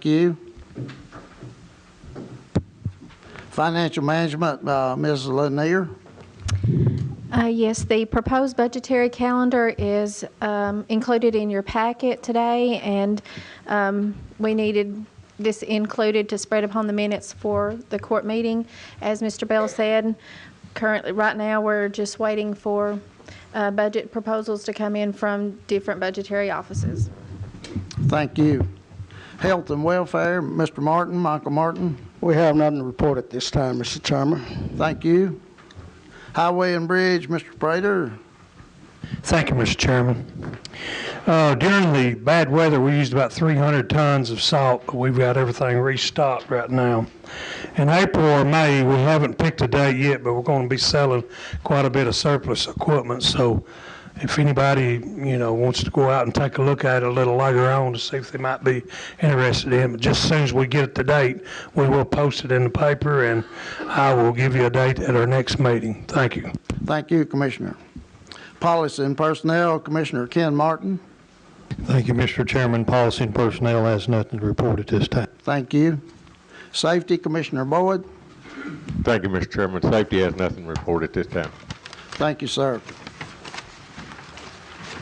Thank you. Financial Management, uh, Ms. Lanier. Uh, Yes, the proposed budgetary calendar is um, included in your packet today, and um, we needed this included to spread upon the minutes for the court meeting. As Mr. Bell said, currently, right now, we're just waiting for uh, budget proposals to come in from different budgetary offices. Thank you. Health and Welfare, Mr. Martin, Michael Martin. We have nothing to report at this time, Mr. Chairman. Thank you. Highway and Bridge, Mr. Prater. Thank you, Mr. Chairman. Uh, During the bad weather, we used about 300 tons of salt, but we've got everything restocked right now. In April or May, we haven't picked a date yet, but we're going to be selling quite a bit of surplus equipment. So if anybody, you know, wants to go out and take a look at it a little later on to see if they might be interested in it, but just as soon as we get the date, we will post it in the paper, and I will give you a date at our next meeting. Thank you. Thank you, Commissioner. Policy and Personnel, Commissioner Ken Martin. Thank you, Mr. Chairman. Policy and Personnel has nothing to report at this time. Thank you. Safety, Commissioner Boyd. Thank you, Mr. Chairman. Safety has nothing reported this time. Thank you, sir.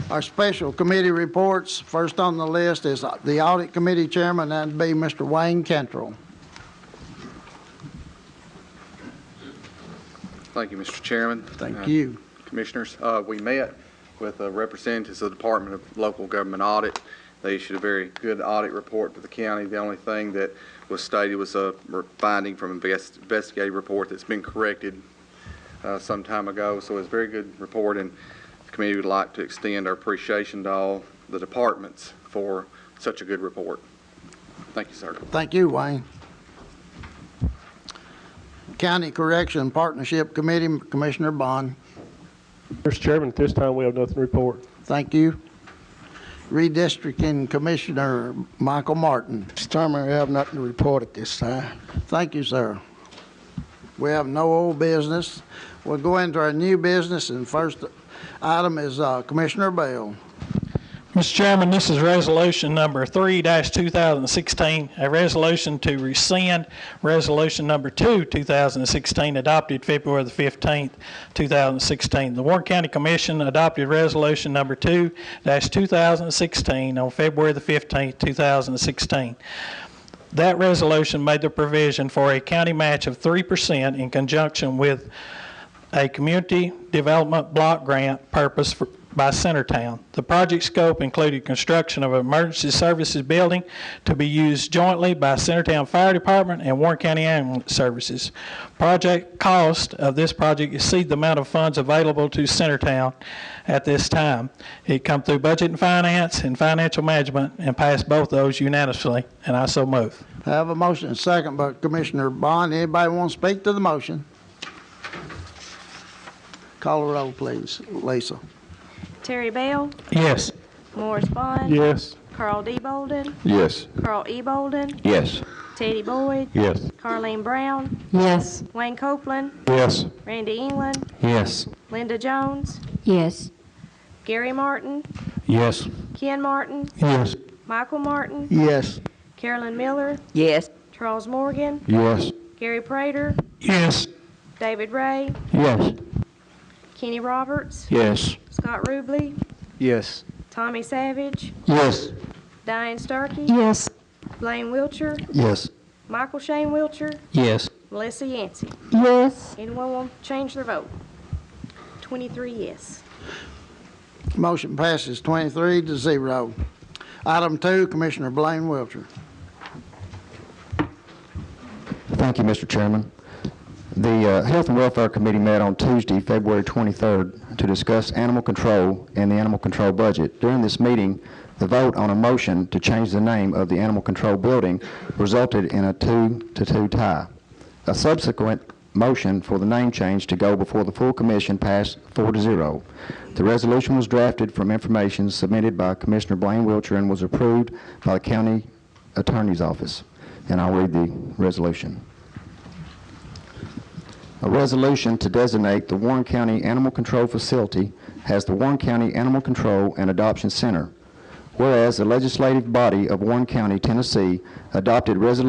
Our special committee reports, first on the list is the Audit Committee Chairman, that'd be Mr. Wayne Cantrell. Thank you, Mr. Chairman. Uh, Thank you. Commissioners, uh, we met with uh, representatives of the Department of Local Government Audit. They issued a very good audit report to the county. The only thing that was stated was a re- finding from invest- investigative report that's been corrected uh, some time ago. So it's a very good report, and the committee would like to extend our appreciation to all the departments for such a good report. Thank you, sir. Thank you, Wayne. County Correction Partnership Committee, Commissioner Bond, Mr. Chairman, at this time, we have nothing to report. thank you. Redistricting Commissioner Michael Martin, Mr. Chairman, we have nothing to report at this time. thank you, sir. We have no old business. We'll go into our new business, and first item is uh, Commissioner Bell. Mr. Chairman, this is resolution number three two thousand sixteen, a resolution to rescind resolution number two, two thousand sixteen, adopted February the fifteenth, two thousand sixteen. The Warren County Commission adopted resolution number two two thousand sixteen on February the fifteenth, two thousand sixteen. That resolution made the provision for a county match of three percent in conjunction with a community development block grant purpose for, by Centertown. The project scope included construction of an emergency services building to be used jointly by Centertown Fire Department and Warren County Ambulance Services. Project cost of this project exceed the amount of funds available to Centertown at this time. It come through budget and finance and financial management and passed both those unanimously, and I so move. Have a motion, and second by Commissioner Bond. Anybody want to speak to the motion? Call the roll, please. Lisa. Terry Bell, Yes. Morris Bond. Yes. Carl D. Bolden, Yes. Carl E. Bolden, Yes. Teddy Boyd, Yes. Carleen Brown, Yes. Wayne Copeland, Yes. Randy England, Yes. Linda Jones, Yes. Gary Martin, Yes. Ken Martin, Yes. Michael Martin, Yes. Carolyn Miller, Yes. Charles Morgan, Yes. Gary Prater, Yes. David Ray, Yes. Kenny Roberts, Yes. Scott Ruble, Yes. Tommy Savage, Yes. Diane Starkey, Yes. Blaine Wiltshire, Yes. Michael Shane Wiltshire, Yes. Melissa Yancey. Yes. Anyone want to change their vote? 23 yes. Motion passes 23 to 0. Item two, Commissioner Blaine Wiltshire. Thank you, Mr. Chairman. The uh, Health and Welfare Committee met on Tuesday, February 23rd, to discuss animal control and the animal control budget. During this meeting, the vote on a motion to change the name of the animal control building resulted in a two-to-two tie. A subsequent motion for the name change to go before the full commission passed four to zero. The resolution was drafted from information submitted by Commissioner Blaine Wiltshire and was approved by the county attorney's office. And I'll read the resolution. A resolution to designate the Warren County Animal Control Facility as the Warren County Animal Control and Adoption Center. Whereas the legislative body of Warren County, Tennessee adopted Resolution